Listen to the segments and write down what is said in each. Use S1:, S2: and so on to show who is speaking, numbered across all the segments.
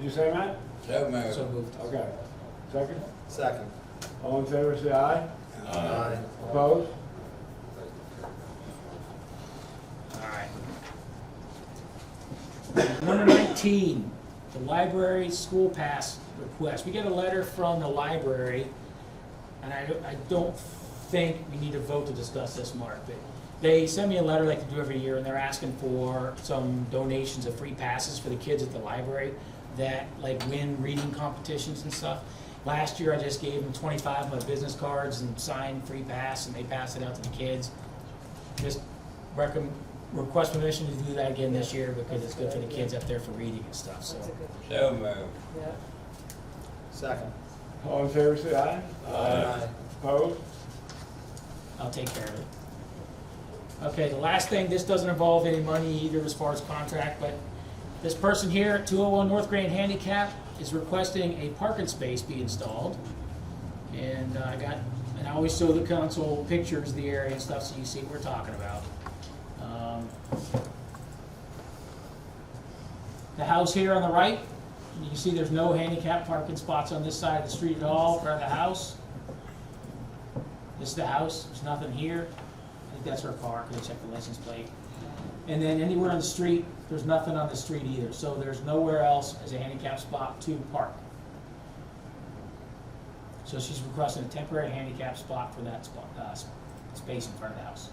S1: you say, Matt?
S2: So moved.
S3: So moved.
S1: Okay. Second?
S4: Second.
S1: All in favor, say aye.
S4: Aye.
S1: Opposed?
S3: All right. Number nineteen, the library school pass request. We get a letter from the library, and I, don't- I don't think we need to vote to discuss this, Mark, but they send me a letter like they do every year, and they're asking for some donations of free passes for the kids at the library that like win reading competitions and stuff. Last year, I just gave them twenty-five of my business cards and signed free pass, and they passed it out to the kids. Just recommend, request permission to do that again this year because it's good for the kids up there for reading and stuff, so.
S5: That's a good,
S2: So moved.
S5: yeah.
S4: Second.
S1: All in favor, say aye.
S4: Aye.
S1: Opposed?
S3: I'll take care of it. Okay, the last thing, this doesn't involve any money either as far as contract, but this person here at two oh one North Grand Handicap is requesting a parking space be installed. And uh, I got, and I always show the council pictures of the area and stuff, so you see what we're talking about. Um, The house here on the right, you can see there's no handicap parking spots on this side of the street at all, or the house. This is the house, there's nothing here. I think that's her car, could check the license plate. And then anywhere on the street, there's nothing on the street either, so there's nowhere else as a handicap spot to park. So she's requesting a temporary handicap spot for that spot, uh, s- space in front of the house.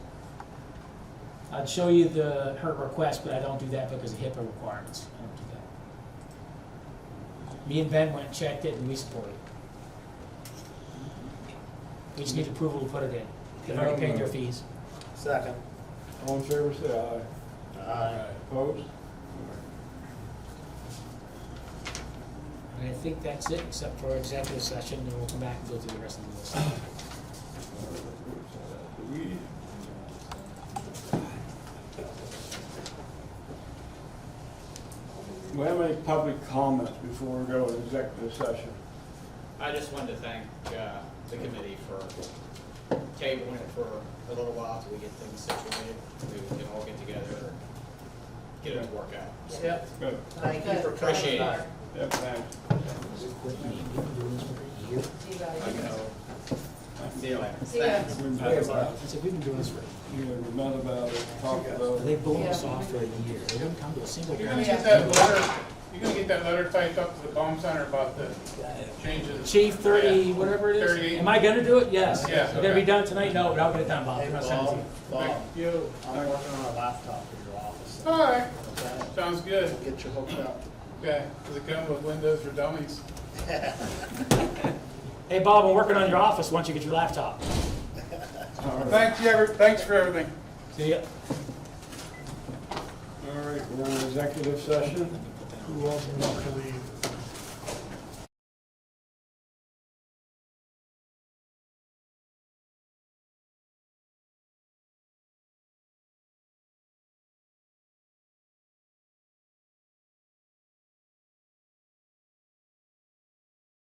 S3: I'd show you the, her request, but I don't do that because of HIPAA requirements, I don't do that. Me and Ben went and checked it and we support it. We just need approval to put it in. They've already paid their fees.
S4: Second.
S1: All in favor, say aye.
S4: Aye.
S1: Opposed?
S3: And I think that's it, except for executive session, and we'll come back and go through the rest of the list.
S1: Do we have any public comments before we go to executive session?
S6: I just wanted to thank uh, the committee for tabling it for a little while till we get things situated. We can all get together and get it to work out.
S4: Yep.
S1: Good.
S4: Thank you for coming
S6: Appreciate it.
S4: back.
S1: Yep, thanks.
S5: See you guys.
S6: I know. See you later.
S5: See ya.
S1: We've
S4: Bye.
S1: had about,
S3: I said, we've been doing this for,
S1: you know, we've met about it, talked about it.
S3: they blow us off for a year. They don't come to a single
S7: You're
S3: one.
S7: gonna get that letter, you're gonna get that letter typed up to the bomb center about the changes.
S3: Chief, thirty, whatever it is.
S7: 38.
S3: Am I gonna do it? Yes.
S7: Yeah,
S3: It's gonna be
S7: okay.
S3: done tonight? No, but I'll get it done, Bob.
S4: Hey,
S3: I'll send it to
S4: Bob,
S3: you.
S4: Bob,
S7: You,
S4: I'm working on a laptop for your office,
S7: all right,
S4: okay?
S7: sounds good,
S4: Get you hooked up.
S7: okay, does it come with windows for dummies?
S3: Hey, Bob, I'm working on your office once you get your laptop.
S1: All right,
S7: Thanks, you ever, thanks for everything.
S3: See ya.
S1: all right, we're in executive session.
S8: Who also wants to leave?